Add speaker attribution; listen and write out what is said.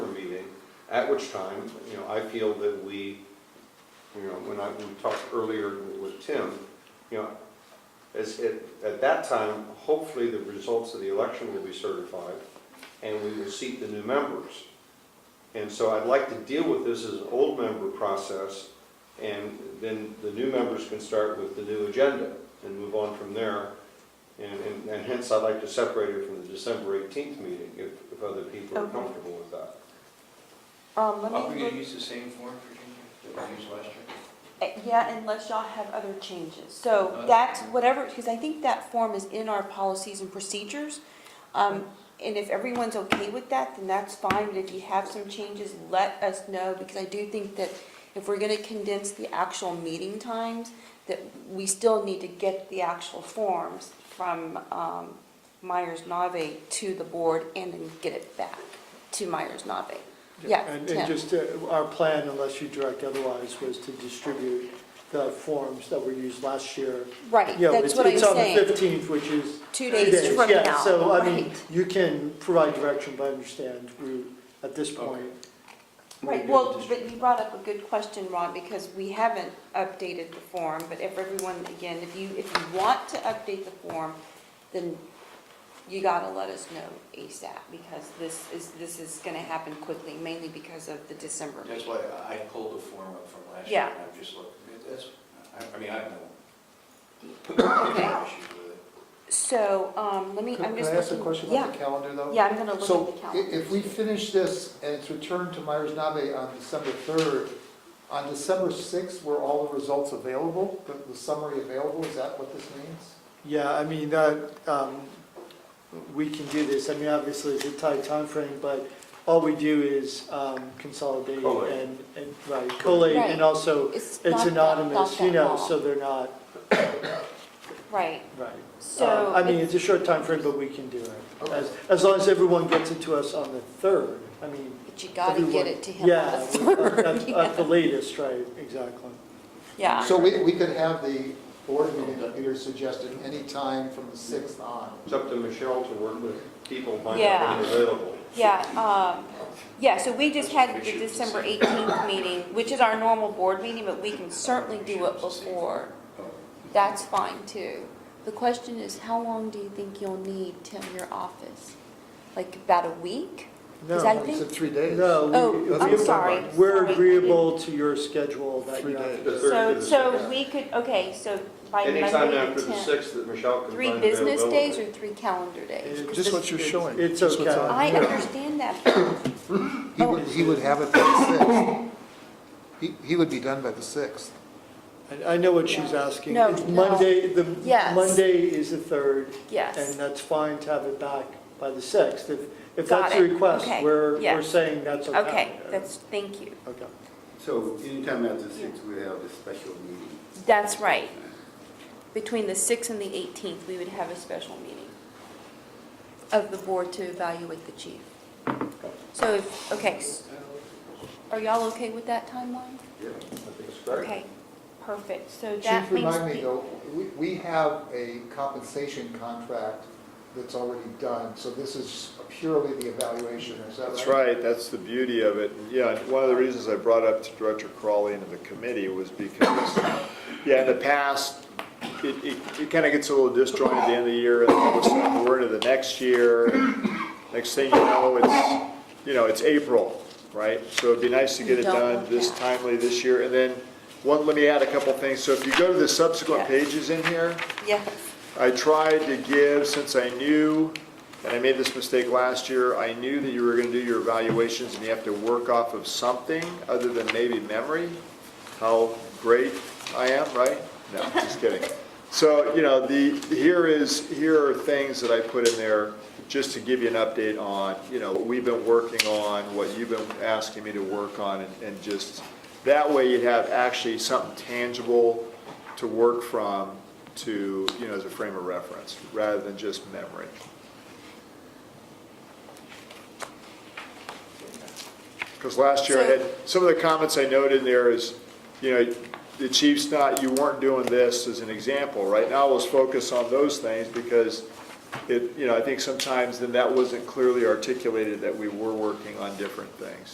Speaker 1: At which time, you know, I feel that we, you know, when I, we talked earlier with Tim, you know, as, at, at that time, hopefully the results of the election will be certified and we will seat the new members. And so I'd like to deal with this as an old member process and then the new members can start with the new agenda and move on from there. And, and- and hence, I'd like to separate it from the December 18th meeting if, if other people are
Speaker 2: Okay.
Speaker 1: comfortable with that.
Speaker 2: Um, let
Speaker 3: Are we
Speaker 2: me,
Speaker 3: going to
Speaker 2: look-
Speaker 3: use the same form, Virginia, that we used last year?
Speaker 2: eh, yeah, unless y'all have other changes. So
Speaker 3: Uh,
Speaker 2: that's whatever, because I think that form is in our policies and procedures. Um, and if everyone's okay with that, then that's fine, but if you have some changes, let us know, because I do think that if we're gonna condense the actual meeting times, that we still need to get the actual forms from, um, Myers-Nave to the board and then get it back to Myers-Nave. Yeah,
Speaker 4: And
Speaker 2: Tim.
Speaker 4: and just, uh, our plan, unless you direct otherwise, was to distribute the forms that were used last year.
Speaker 2: Right,
Speaker 4: You know,
Speaker 2: that's
Speaker 4: it's-
Speaker 2: what I'm
Speaker 4: It's on
Speaker 2: saying.
Speaker 4: the 15th, which is.
Speaker 2: Two days from now.
Speaker 4: Yeah, so I mean,
Speaker 2: Right.
Speaker 4: you can provide direction, but I understand we, at this point,
Speaker 2: Right,
Speaker 3: Maybe
Speaker 2: well,
Speaker 3: just-
Speaker 2: but you brought up a good question, Ron, because we haven't updated the form, but if everyone, again, if you, if you want to update the form, then you gotta let us know ASAP, because this is, this is gonna happen quickly, mainly because of the December
Speaker 3: That's
Speaker 2: meeting.
Speaker 3: why I pulled the form up from last year,
Speaker 2: Yeah.
Speaker 3: and I'm just looking, that's, I- I mean, I have no
Speaker 2: Okay.
Speaker 3: issues with it.
Speaker 2: So, um, let me,
Speaker 5: Could
Speaker 2: I'm
Speaker 5: could
Speaker 2: just
Speaker 5: I ask a
Speaker 2: looking.
Speaker 5: question
Speaker 2: yeah,
Speaker 5: about the calendar, though?
Speaker 2: Yeah, I'm gonna look at the
Speaker 5: So i-
Speaker 2: calendar.
Speaker 5: if we finish this and it's returned to Myers-Nave on December 3rd, on December 6th, were all the results available, the- the summary available? Is that what this means?
Speaker 4: yeah, I mean, that, um, we can do this. I mean, obviously, it's a tight time frame, but all we do is um, consolidate
Speaker 1: Collate.
Speaker 4: and, and, right, collate,
Speaker 2: Right.
Speaker 4: and also,
Speaker 2: not
Speaker 4: it's
Speaker 2: that-
Speaker 4: anonymous,
Speaker 2: not
Speaker 4: you
Speaker 2: that
Speaker 4: know,
Speaker 2: long.
Speaker 4: so they're not,
Speaker 2: Right,
Speaker 4: right.
Speaker 2: so.
Speaker 4: Uh, I mean,
Speaker 2: it's-
Speaker 4: it's a short time frame, but we can do it. As, as long as everyone gets it to us on the 3rd, I mean.
Speaker 2: But you gotta get
Speaker 4: everyone-
Speaker 2: it to him on
Speaker 4: Yeah,
Speaker 2: the
Speaker 4: we- uh, at- At the latest, right, exactly.
Speaker 2: Yeah.
Speaker 5: So we, we could have the board meeting that Peter suggested any time from the 6th on.
Speaker 1: It's up to Michelle to work with people, find
Speaker 2: Yeah.
Speaker 1: out who's available.
Speaker 2: Yeah, um, yeah, so we just had the December 18th meeting, which is our normal board meeting, but we can certainly do it before. That's fine, too. The question is, how long do you think you'll need, Tim, your office? Like about a week? Because I
Speaker 4: No,
Speaker 5: You said
Speaker 2: think,
Speaker 5: three days.
Speaker 4: no. we-
Speaker 2: oh,
Speaker 4: we-
Speaker 2: I'm sorry.
Speaker 4: We're
Speaker 2: sorry.
Speaker 4: agreeable to your schedule that
Speaker 5: Three
Speaker 4: you have.
Speaker 1: The
Speaker 4: to-
Speaker 5: days.
Speaker 1: third to
Speaker 2: So,
Speaker 1: the
Speaker 2: so
Speaker 1: sixth.
Speaker 2: we could, okay, so by Monday
Speaker 1: Anytime after
Speaker 2: the
Speaker 1: the
Speaker 2: 10th.
Speaker 1: 6th that Michelle can
Speaker 2: Three
Speaker 1: find
Speaker 2: business days
Speaker 1: availability.
Speaker 2: or three calendar days? 'Cause
Speaker 5: Just
Speaker 2: this-
Speaker 5: what you're showing.
Speaker 4: It's just what's okay. on.
Speaker 2: I understand that.
Speaker 5: He would, he would have it by the 6th. He, he would be done by the 6th.
Speaker 4: I I know what she's asking.
Speaker 2: No,
Speaker 4: It's
Speaker 2: no.
Speaker 4: Monday, the,
Speaker 2: Yes.
Speaker 4: Monday is the 3rd,
Speaker 2: Yes,
Speaker 4: and that's fine to have it back by the 6th. If, if
Speaker 2: Got
Speaker 4: that's the
Speaker 2: it.
Speaker 4: request,
Speaker 2: Okay.
Speaker 4: we're,
Speaker 2: Yeah.
Speaker 4: we're saying that's okay.
Speaker 2: okay, that's, thank you.
Speaker 4: Okay.
Speaker 6: So anytime after six, we have a special meeting.
Speaker 2: That's right. Between the 6th and the 18th, we would have a special meeting of the board to evaluate the chief. So, if okay, s- are y'all okay with that timeline?
Speaker 1: I think it's great.
Speaker 2: Okay, perfect, so
Speaker 5: Chief,
Speaker 2: that makes.
Speaker 5: remind me
Speaker 2: me-
Speaker 5: though, we, we have a compensation contract that's already done, so this is purely the evaluation, is that right?
Speaker 7: That's right, that's the beauty of it. And, Yeah, and one of the reasons I brought up to Director Crawley and the committee was because, yeah, in the past, it, it, it kind of gets a little disjointed at the end of the year, and then all of a sudden, we're into the next year. Next thing you know, it's, you know, it's April, right? So it'd be nice to get it
Speaker 2: You don't
Speaker 7: done
Speaker 2: want
Speaker 7: this
Speaker 2: that.
Speaker 7: timely this year. And then, one, let me add a couple things. So if you go to the subsequent
Speaker 2: Yes.
Speaker 7: pages in here,
Speaker 2: Yes,
Speaker 7: I tried to give, since I knew, and I made this mistake last year, I knew that you were gonna do your evaluations and you have to work off of something other than maybe memory, how great I am, right? No, just kidding. So, you know, the, here is, here are things that I put in there just to give you an update on, you know, what we've been working on, what you've been asking me to work on, and- and just, that way you'd have actually something tangible to work from to, you know, as a frame of reference, rather than just memory. Because last year I had, some of the comments I noted in there is, you know, the chief's not, you weren't doing this as an example. Right now, let's focus on those things because it, you know, I think sometimes then that wasn't clearly articulated that we were working on different things.